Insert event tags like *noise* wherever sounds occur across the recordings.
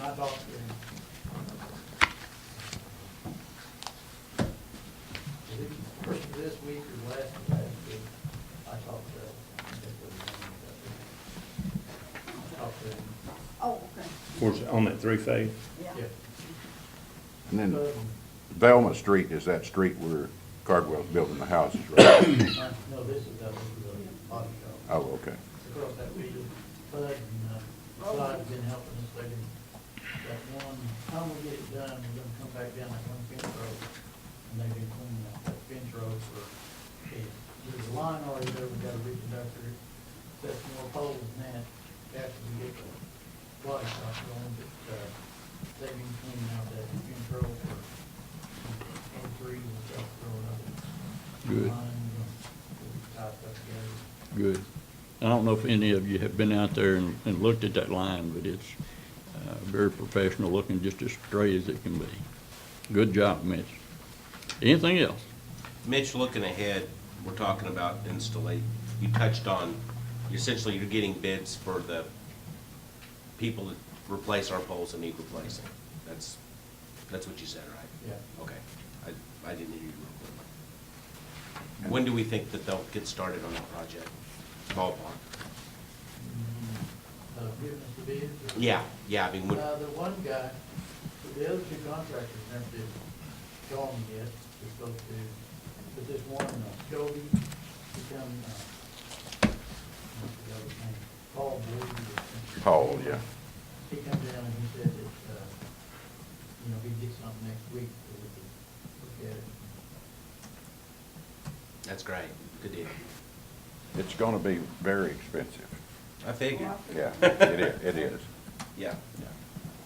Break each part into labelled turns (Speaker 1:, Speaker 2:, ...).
Speaker 1: I volunteer. Is it First of this week or last of last week, I talked to, I think it was, I talked to him.
Speaker 2: Oh, okay,
Speaker 3: Of course, on that three-phase,
Speaker 2: yeah.
Speaker 1: Yeah.
Speaker 4: And then
Speaker 1: Um,
Speaker 4: Velma Street is that street where Cardwell's building the houses, right? *coughs*
Speaker 1: uh, No, this is, uh, this is a body shop.
Speaker 4: Oh, okay.
Speaker 1: across that region. Bud and, uh, Clyde have been helping us, they've been, that one, time we get it done, we're gonna come back down that one fence road. And they've been cleaning up that fence road for, yeah, there's a line already there, we gotta reconduct it, set some more poles than that, after we get the body shop going, but, uh, they've been cleaning out that fence road for, uh, and three and stuff growing up.
Speaker 5: Good.
Speaker 1: Line, you know, tied up together.
Speaker 5: Good. I don't know if any of you have been out there and, and looked at that line, but it's, uh, very professional looking, just as straight as it can be. Good job, Mitch. Anything else?
Speaker 6: Mitch, looking ahead, we're talking about installate, you touched on, essentially you're getting bids for the people that replace our poles that need replacing. That's, that's what you said, right?
Speaker 1: Yeah.
Speaker 6: Okay. I, I didn't hear you real quick. When do we think that they'll get started on that project? Ballpark?
Speaker 1: Uh, giving us the bids? or-
Speaker 6: Yeah, yeah, I mean, when,
Speaker 1: Uh, the one guy, the other two contractors never did call me yet, they're supposed to, but this one, uh, Cody, he come, uh, I forgot his name, Paul Blue. or something.
Speaker 4: Paul, yeah.
Speaker 1: He come down and he said that, uh, you know, he'd get something next week, so we could look at it.
Speaker 6: that's great, good deal.
Speaker 4: It's gonna be very expensive.
Speaker 6: I figured,
Speaker 4: Yeah, it is, it is.
Speaker 6: yeah.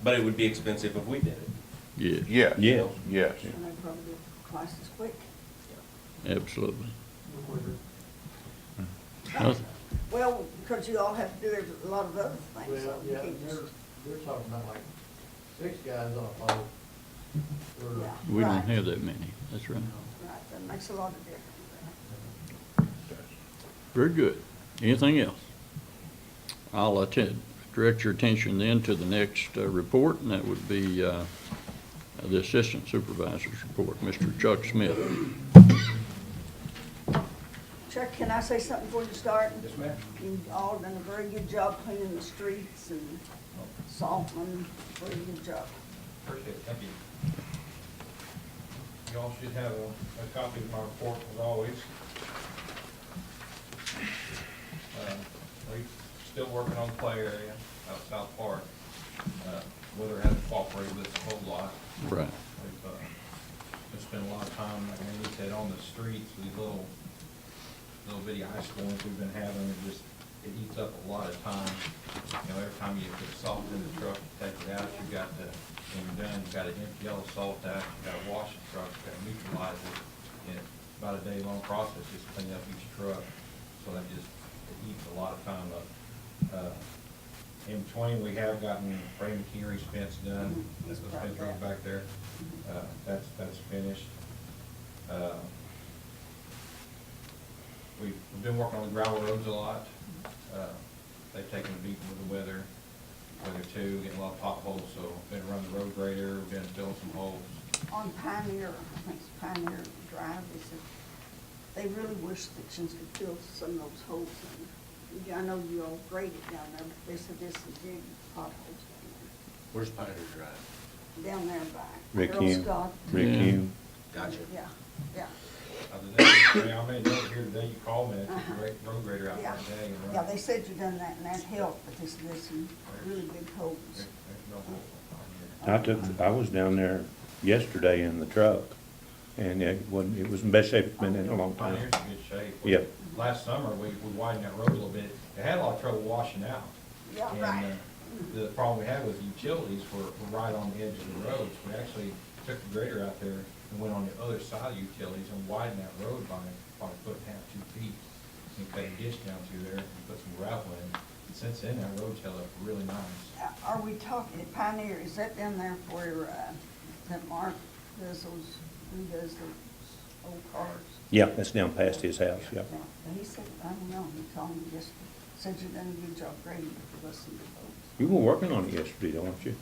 Speaker 6: But it would be expensive if we did it.
Speaker 5: Yeah,
Speaker 4: Yes.
Speaker 3: Yeah.
Speaker 4: Yes.
Speaker 2: And they probably do twice as quick.
Speaker 5: absolutely.
Speaker 1: Look where the-
Speaker 5: Nothing-
Speaker 2: Well, because you all have to do every- a lot of other things, so
Speaker 1: Well,
Speaker 2: you
Speaker 1: yeah,
Speaker 2: can't
Speaker 1: they're,
Speaker 2: just.
Speaker 1: they're talking about like six guys on a pole. Or-
Speaker 2: *laughs* Yeah.
Speaker 5: We don't
Speaker 2: Right.
Speaker 5: have that many, that's right.
Speaker 2: Right, that makes a lot of difference.
Speaker 5: Very good. Anything else? I'll attend, direct your attention then to the next uh, report, and that would be uh, the Assistant Supervisor's Report, Mr. Chuck Smith.
Speaker 2: Chuck, can I say something before you start?
Speaker 7: Yes, ma'am.
Speaker 2: You've all done a very good job cleaning the streets and salting them, very good job.
Speaker 7: Appreciate it, thank you. Y'all should have a, a copy of my report as always. Uh, We still working on play area out South Park. Uh, Weather hasn't cooperated with us a whole lot.
Speaker 5: Right.
Speaker 7: We've, uh, just spent a lot of time, like Andy said, on the streets, these little, little bitty ice storms we've been having, it just, it eats up a lot of time. You know, every time you put salt in the truck, you take it out, you got to, when you're done, you gotta empty all the salt out, you gotta wash the truck, you gotta neutralize it. And it's about a day-long process, just cleaning up each truck, so that just, it eats a lot of time up. Uh, In between, we have gotten Ray McHenry's fence done, that's the fence road back there, uh, that's, that's finished. Uh, We've we've been working on the gravel roads a lot. Uh, They've taken a beating with the weather, weather too, getting a lot of potholes, so been running the road grader, been filling some holes.
Speaker 2: On Pioneer, I think it's Pioneer Drive, they said, they really wish sections could fill some of those holes in. Yeah, I know you all graded down there, but they said there's some big potholes down
Speaker 6: Where's Pioneer Drive?
Speaker 2: there, down there by.
Speaker 3: Rick
Speaker 2: Earl
Speaker 3: Hume.
Speaker 2: Scott.
Speaker 3: Rick
Speaker 5: Yeah.
Speaker 3: Hume.
Speaker 6: Gotcha.
Speaker 2: Yeah, yeah,
Speaker 7: Other than, I mean, I made a note here today, you called me, I took the ra- road grader out
Speaker 2: Uh-huh. yeah.
Speaker 7: there today and run.
Speaker 2: Yeah, they said you done that and that helped, but there's, there's some really big holes.
Speaker 7: There's there's no hole on
Speaker 3: I took, I was down there yesterday in the truck, and it wasn't, it was in best shape it's been in a long
Speaker 7: here. Pioneer's
Speaker 3: time.
Speaker 7: in good shape.
Speaker 3: Yeah.
Speaker 7: Last summer, we we widened that road a little bit. It had a lot of trouble washing out.
Speaker 2: Yeah,
Speaker 7: And
Speaker 2: right.
Speaker 7: uh, the problem we had was utilities were were right on the edge of the roads. We actually took the grader out there and went on the other side of utilities and widened that road by, by a foot and a half, two feet. And cut a ditch down through there and put some gravel in. And Since then, that road's held up really nice.
Speaker 2: Uh, Are we talking, Pioneer, is that down there where, uh, that Mark does those, who does those old cars?
Speaker 3: Yeah, that's down past his house, yeah.
Speaker 2: And he said, I don't know, he called me just, said you done a good job grading, listen to those.
Speaker 3: You were working on it yesterday, don't you?